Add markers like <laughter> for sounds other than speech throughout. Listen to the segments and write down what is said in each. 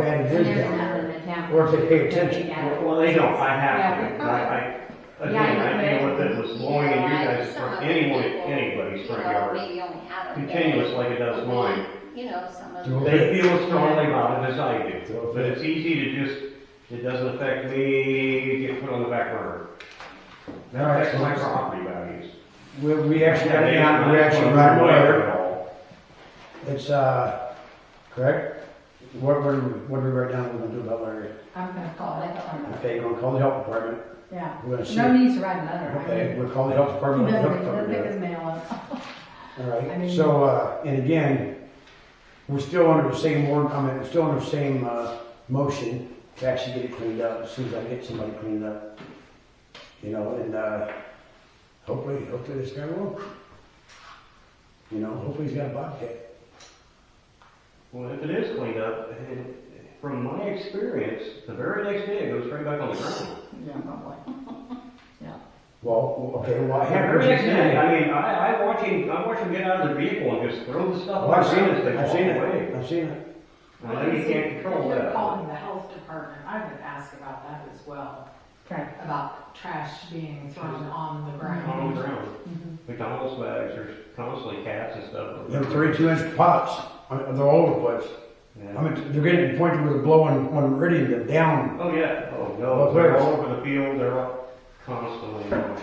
And They're here's not in the town. Or if they pay They're big attention. out. Well, they don't, I Yeah, have we to, probably- I, I, Yeah, again, you I deal with could. it with mowing and you guys, front- anyone, anybody's front yard, continuous like it does mine. You know, some of. Do the- They feel strongly about it as I do, but it's easy to just, it doesn't affect me, get put on the back burner. All That right, affects so my it's- property values. We, we actually got And it they- down, we actually I'm run aware of away. it all. It's, uh, correct? What, what, do we- what do we write down we're gonna do about Larry? I'm gonna call that number. Okay, you're gonna call the health department, Yeah. we're gonna see. No need to write another. Okay, we'll call the health department, the health department. Pick does it. his mail up. All I right, mean- so, uh, and again, we're still under the same warrant, I mean, we're still under the same, uh, motion to actually get it cleaned up, as soon as I get somebody cleaned up. You know, and, uh, hopefully, hopefully this guy will. You know, hopefully he's got a bobcat. Well, if it is cleaned up, it- from my experience, the very next day it goes right back on the ground. Yeah, probably. Well, okay, well, I I have. heard you say, I mean, I, I watch him, I watch him get out of the vehicle and just throw the stuff. Well, Oh, I've seen around as it, they I've seen walk it, away. I've seen it. I know you can't control If you're that. calling the health department, I would ask about that as well, Okay. about trash being thrown on the On Oh, the ground. ground. Mm-hmm. McDonald's bags, there's constantly cats and stuff. Them thirty-two inch pots, I mean, they're all over the place. I Yeah. mean, they're getting to the point where they're blowing one meridian to down. Oh, yeah, oh, Well, no, they're there's- all over the field, they're all constantly on the ground.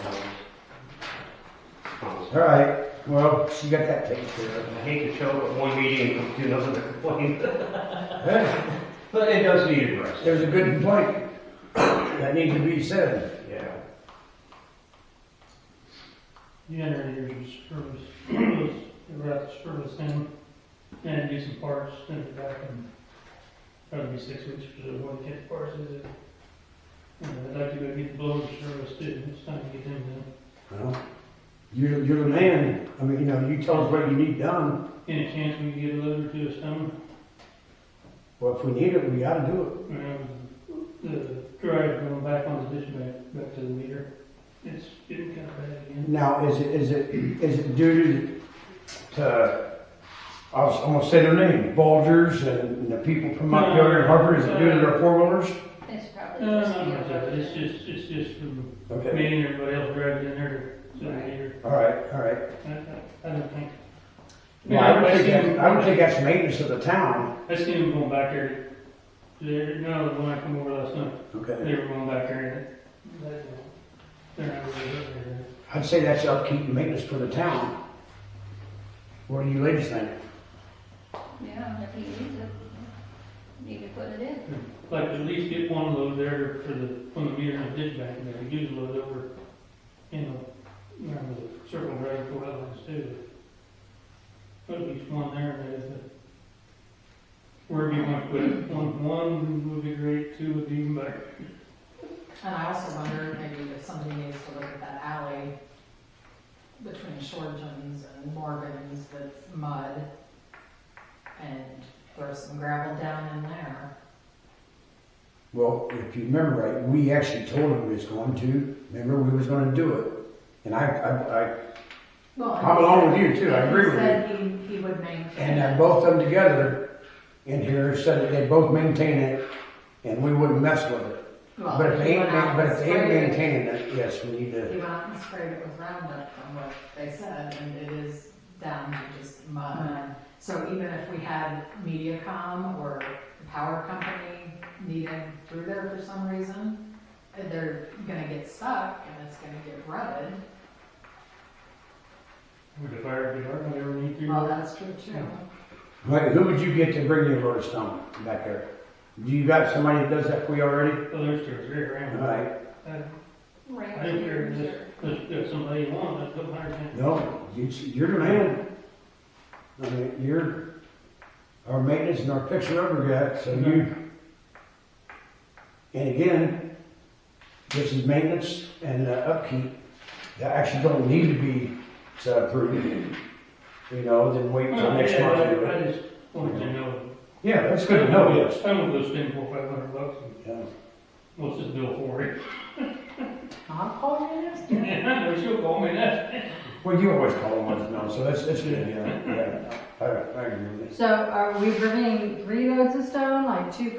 Constantly. All right, well, she got that taken care of. I hate to show up at one meeting <laughs> and do nothing to complain, Hey, <laughs> but it does need addressed, there's a good complaint that needs to be said. yeah. The generator is service, service, they have to service them and do some parts, then they're back in, probably be six weeks for the one kit parts, is it? And I'd like to go get the blower service too, it's time to get them done. Well, You're, you're the man, I mean, you know, you tell us what you need done, Any chance we can get a loader to a stone? well, if we need it, we gotta do Um, the dryer going back on the ditch back, back to the meter, it's getting kind of bad it. again. Now, is it, is it, is it due to, to, I was, I'm gonna say their name, Bulgers and the people from Montgomery and Harper, is it due to their four wheelers? It's probably No, just. no, the no, no, other- Uh, it's just, it's just from me Okay, and everybody else driving in there to the Right. meter. all right, all right. I I don't think. Well, I would think, that- I would think that's maintenance of the town. I seen them going back there, they're, no, when I come over last night, Okay. they were going back there. and that- They're not really up there. I'd say that's upkeep and maintenance for the town. What do you ladies think? Yeah, if you use it, need to put it in. Like, at least get one load there for the, from the meter and the ditch back in there, use a load over, you know, around the circle drive for wetlands too. Put at least one there, and if it, wherever you want to put it, one, one would be great, two would be even better. And I also wonder maybe if somebody needs to look at that alley between Shortens and Morgan's that's mud and throw some gravel down in there. Well, if you remember right, we actually told them we was going to, remember, we was gonna do it. And I, I, I, I'm along with you too, I agree with you. Said he, he would maintain. And uh, both of them together in here said that they both maintain it and we wouldn't mess with it. Well, But if he they ain't, went out ma- but and if they ain't sprayed it. maintaining it, yes, we need He to, went out and sprayed it with Roundup from what they said, and it is down to just Uh, mud. So even if we had MediaCom or the power company needed through there for some reason, they're gonna get stuck and it's gonna get rutted. Would the fire be hard, would ever need to? Well, that's true too. like, who would you get to bring you a load of stone back there? Do you got somebody that does that for you already? Well, there's two or three All around. right. I I think there's, Ranchers there's, or, there's somebody you want, that's what I'm saying. No, you- you're the man. I mean, you're our maintenance and our fixer upper guy, so you. And again, this is maintenance and uh, upkeep that actually don't need to be uh, approved. You know, then wait until Oh, next month to do I it. I just wanted to know. Yeah, that's good to know, yes. I don't go spend four, five hundred bucks, and Yeah. what's this bill for <laughs> it? I'll call you next time. And I know she'll call me that. Well, you always call them once, no, so that's, that's good, yeah, yeah. I, I agree with that. So are we bringing three loads of stone, like two